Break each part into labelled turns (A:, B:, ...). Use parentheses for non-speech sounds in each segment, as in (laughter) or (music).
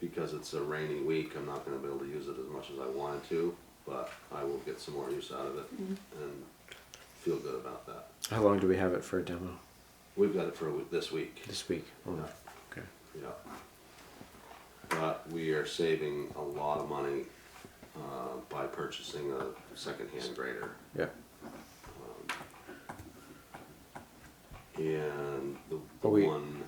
A: because it's a rainy week, I'm not gonna be able to use it as much as I wanted to, but I will get some more use out of it
B: Mm-hmm.
A: and feel good about that.
B: How long do we have it for a demo
A: We've got it for a week- this week.
B: this week? only?
A: Yeah.
B: Okay.
A: Yeah. But we are saving a lot of money uh, by purchasing a secondhand grader.
B: Yeah.
A: And the, the
B: But we-
A: one,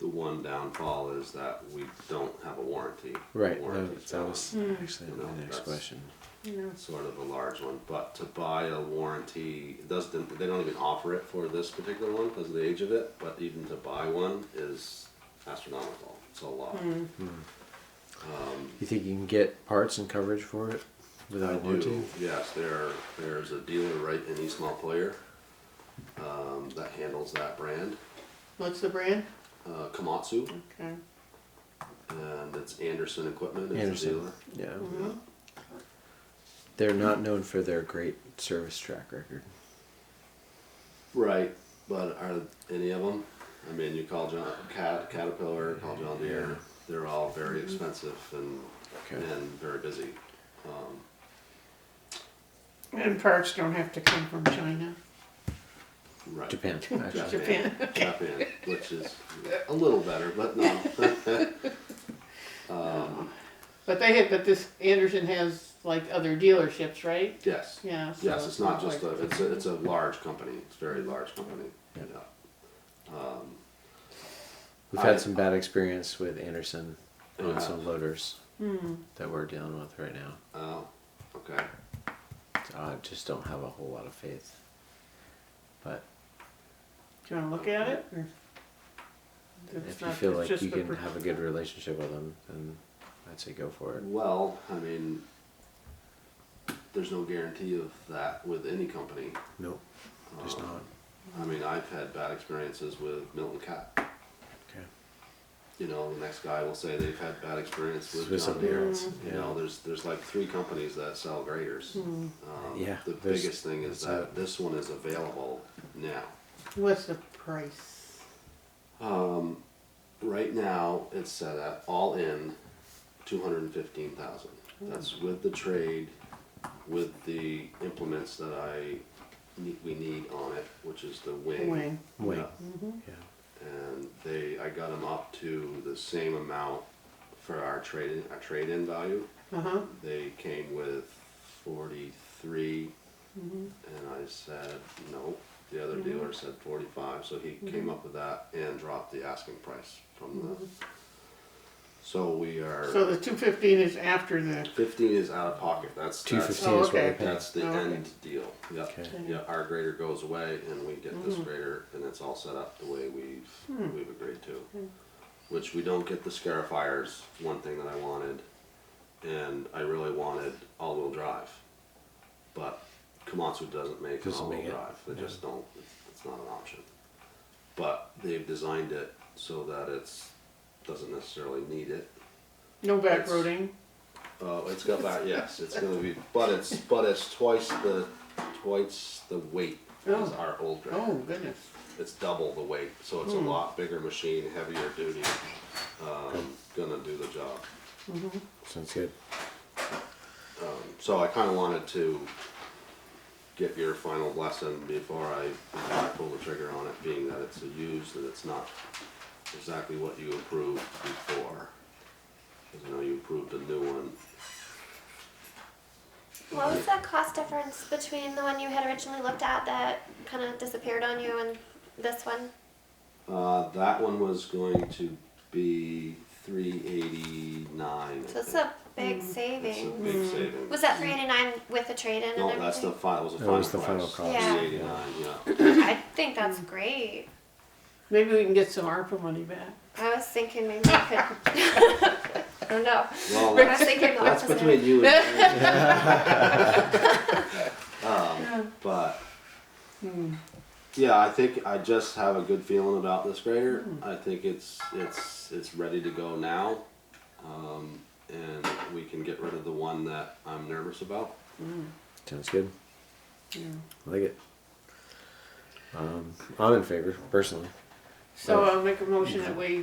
A: the one downfall is that we don't have a warranty.
B: Right. no,
A: Warranty's
B: that was
A: gone.
B: actually
A: You
B: my
A: know,
B: next
A: that's-
B: question.
C: Yeah.
A: Sort of a large one, but to buy a warranty, it doesn't, they don't even offer it for this particular one because of the age of it, but even to buy one is astronomical. It's a lot.
B: You think you can get parts and coverage for it
A: I
B: without warranty?
A: do, yes, there, there's a dealer right in East Montpelier, um, that handles that brand,
C: What's the brand?
A: uh, Komatsu,
C: Okay.
A: and it's Anderson Equipment is the
B: Anderson.
A: dealer. Mm-hmm.
B: Yeah.
A: Yeah.
B: They're not known for their great service track record.
A: Right, but are any of them, I mean, you call John, Cat, Caterpillar, call John Deere, they're all very expensive and,
B: Okay.
A: and very busy. Um,
C: And parts don't have to come from China.
A: Right. (laughs)
B: Japan, actually.
A: Japan. Japan, which is a little better, but no.
C: But they have, but this Anderson has like other dealerships, right?
A: Yes.
C: Yeah. so
A: Yes, it's not just a,
C: like-
A: it's a, it's a large company, it's a very large company,
B: Yeah.
A: yeah.
B: We've
A: I-
B: had some bad experience with Anderson
A: Yeah.
B: on some loaders that we're dealing with right now.
A: Oh, okay,
B: So I just don't have a whole lot of faith. But
C: Do you want to look at it? or- It's
B: if you
C: not-
B: feel
C: it's
B: like
C: just
B: you
C: the
B: can
C: per-
B: have a good relationship with them, then I'd say go for it.
A: well, I mean, there's no guarantee of that with any company.
B: No, there's
A: Um,
B: not.
A: I mean, I've had bad experiences with Milton Cat,
B: Okay.
A: you know, the next guy will say they've had bad experience with
B: With
A: John
B: something
C: Mm,
A: Deere.
B: else,
A: You
B: yeah.
A: know, there's, there's like three companies that sell graders. Um,
B: Yeah,
A: The
B: there's-
A: biggest thing is
B: that's
A: that
B: it.
A: this one is available now.
C: What's the price?
A: Right now, it's set at all in two hundred and fifteen thousand. That's with the trade, with the implements that I need, we need on it, which is the wing.
C: Wing.
B: Wing.
A: Yeah.
B: Yeah.
A: And they, I got them up to the same amount for our trade, our trade-in value.
C: Uh huh.
A: They came with forty-three, and I said, no. The other dealer said forty-five, so he came up with that and dropped the asking price from the. So we
C: So
A: are,
C: the two fifteen is after the.
A: fifteen is out of pocket, that's, that's,
B: 215
C: Oh,
B: is what we
C: okay.
B: paid.
A: that's the
C: Oh, okay.
A: end deal, yep.
B: Okay.
A: Yeah, our grader goes away and we get
C: Mm-hmm.
A: this grader and it's all set up the way
C: Hmm.
A: we've, we've agreed to. Which we don't get the scarifiers, one thing that I wanted, and I really wanted all-wheel drive. But Komatsu doesn't make an
B: Doesn't make
A: all-wheel
B: it,
A: drive, they
B: yeah.
A: just don't, it's not an option. But they've designed it so that it's, doesn't necessarily need it.
C: No back
A: It's-
C: roading.
A: Uh, it's got that, yes, it's gonna be, but it's, but it's twice the, twice the weight as
C: Oh.
A: our old grader
C: Oh Hmm. goodness.
A: it's double the weight, so it's a lot bigger machine, heavier duty. Um, gonna do the job.
B: Sounds good.
A: So I kind of wanted to get your final blessing before I, before I pull the trigger on it, being that it's a used and it's not exactly what you approved before. Because I know you approved a new one.
D: What was that cost difference between the one you had originally looked at that kind of disappeared on you and this one?
A: Uh, that one was going to be three eighty nine.
D: So it's a big
A: It's Mm, a
D: saving.
A: big saving.
D: Was that 389 with the trade in
A: No,
D: and
A: that's the
D: everything?
A: final, was the
B: That
A: final
B: was
A: price.
B: the final cost.
D: Yeah.
A: Three eighty nine, yeah.
D: I think that's
A: Mm.
D: great.
C: Maybe we can get some ARPA money back.
D: I was thinking maybe I could.
A: (laughs)
D: (laughs) I don't
A: Well,
D: know. I was
A: that's-
D: thinking the
A: That's
D: opposite.
A: between you and me. um, but yeah, I think I just have a good feeling about this grader. I think it's it's it's ready to go now, um, and we can get rid of the one that I'm nervous about.
B: Sounds good.
C: Yeah.
B: I like it. Um, I'm in favor personally.
C: So I'll make a motion that we